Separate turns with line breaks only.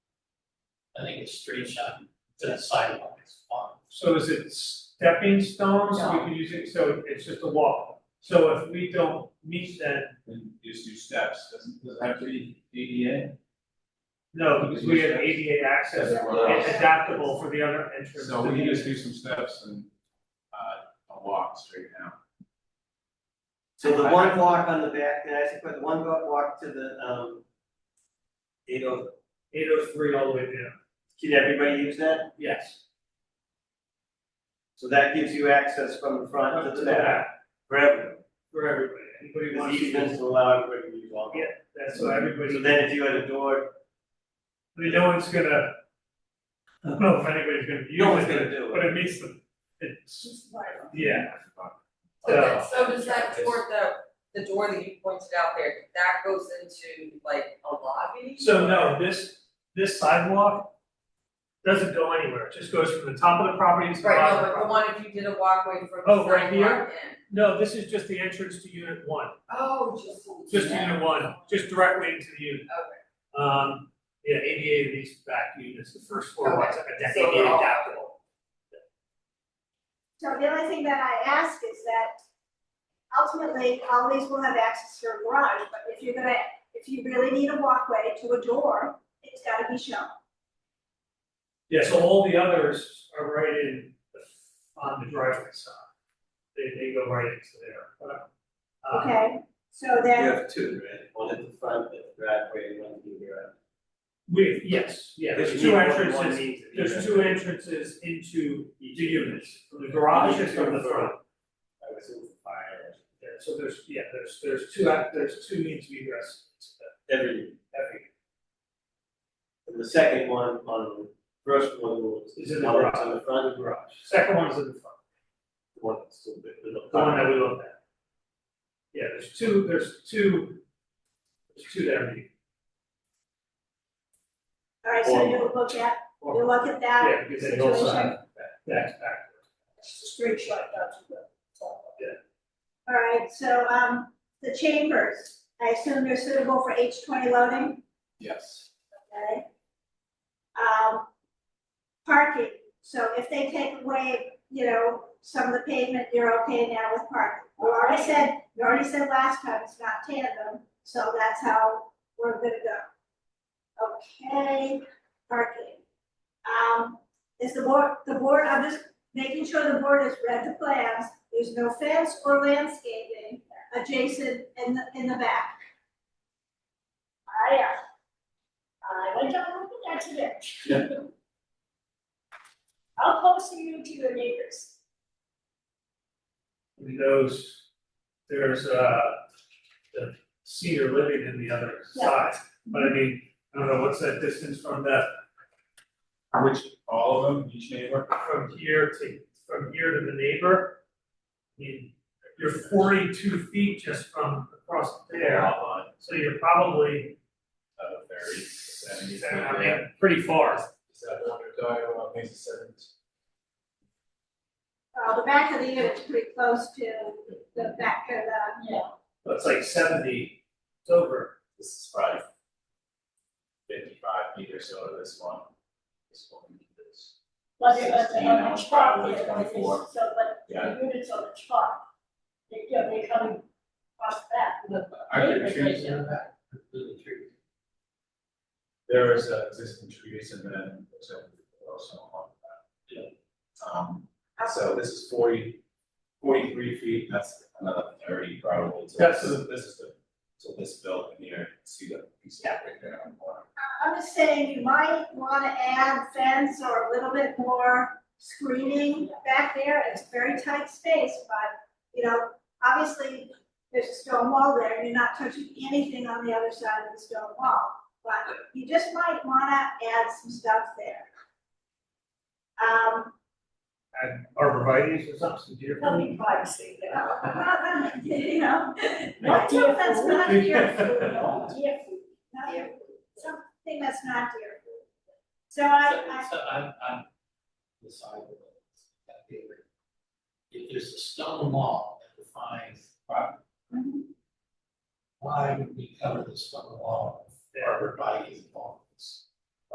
I think it's straight shot to that sidewalk, it's fine.
So is it stepping stones, we
No.
can use it, so it's just a walk. So if we don't meet that,
and just do steps, doesn't, does it have to be ADA?
no, because we have ADA access,
Or what else?
it's adaptable for the other entrance.
So we can just do some steps and, uh, a walk straight down.
So the one walk on the back, can I ask you, but the one go- walk to the, um, eight oh,
Eight oh three all the way down,
can everybody use that?
yes.
So that gives you access from the front to the back, for everyone,
For everybody, anybody
because
wants to.
easements allow everybody to use all.
Yeah, That's so everybody,
So then if you had a door,
I mean, no one's gonna, I don't know if anybody's gonna use it.
no one's gonna do
But
it.
it meets the, it's,
Just right.
yeah,
So that, so does that door, the, the door that you pointed out there, that goes into like a lobby?
so no, this, this sidewalk doesn't go anywhere, it just goes from the top of the property to the
Right,
bottom
no,
of the
but the
property.
one if you did a walkway from
Oh,
the
right
sidewalk in.
here? No, this is just the entrance to unit one,
Oh, just.
just unit one, just directly into the unit.
Okay,
Um, yeah, ADA of these back units, the first floor ones, like a
So
ADA
we're all-
adaptable.
So the only thing that I ask is that ultimately, all these will have access to a garage, but if you're gonna, if you really need a walkway to a door, it's gotta be shown.
Yeah, so all the others are right in, the- on the driveway side, they, they go right into there, but, um,
Okay, so
You
then,
have two, right, one at the front, at the driveway, and one in the garage.
We, yes, yeah,
Because
there's
you
two
need one- one
entrances,
means to be
there's
there.
two entrances into the units, from the garage and from the front.
I was in fire,
Yeah, so there's, yeah, there's, there's two, act- there's two means to egress,
every,
every,
and the second one on, the first one was.
Is in the
one
garage.
that's on the front of the garage,
second one's in the front,
the one that's still big, the
the one that we looked at. Yeah, there's two, there's two, there's two that are meeting.
all right, so you'll look at, you'll look at that,
Yeah, because they go
situation.
side, back, back.
it's a straight shot down to the top. All right, so, um, the chambers, I assume they're suitable for H twenty loading,
Yes.
okay? Um, parking, so if they take away, you know, some of the pavement, you're okay now with parking. You already said, you already said last time it's not tandem, so that's how we're gonna go. Okay, parking. Um, is the board, the board, I'm just making sure the board has read the plans, there's no fence or landscaping adjacent in the, in the back.
I, uh, I went down with an accident. How close are you to your neighbors?
And those, there's uh the senior living in the other side, but I mean, I don't know, what's that distance from that,
Which, all of them, each neighbor?
from here to, from here to the neighbor? I mean, you're forty-two feet just from across there,
Outline,
so you're probably,
uh, very, seventy,
I
seventy.
mean, pretty far.
Is that one or die, one makes a sentence?
Uh, the back of the unit's pretty close to the back of the,
But It's like seventy, it's over,
This is probably fifty-five feet or so to this one. This one, this.
Was it, was it
Sixteen,
on the
I'm
chart,
probably
yeah, but it's-
24.
so, but
Yeah.
the units on the chart, they, you know, they come across that, the
Are there
neighbors,
trees
they
in
know.
the back? There is uh, existing trees and then there's a, also on that. Um, so this is 40 43 feet, that's another thirty probably. So
Yes.
This is, this is the, so this building here, see the piece of right there on the corner.
I- I'm just saying, you might wanna add fence or a little bit more screening back there, it's very tight space, but, you know, obviously, there's a stone wall there, and you're not touching anything on the other side of the stone wall, but you just might wanna add some stuff there. Um,
and arborvitae's or something, dear.
Tell me privacy, you know.
you know,
Not
Something
deer
that's
food.
not deer food.
No, deer food, not deer food.
something that's not deer food. So I, I,
So, so I'm, I'm deciding that paper. If there's a stone wall that defines property. Why would we cover the stone wall with arborvitae's and palms?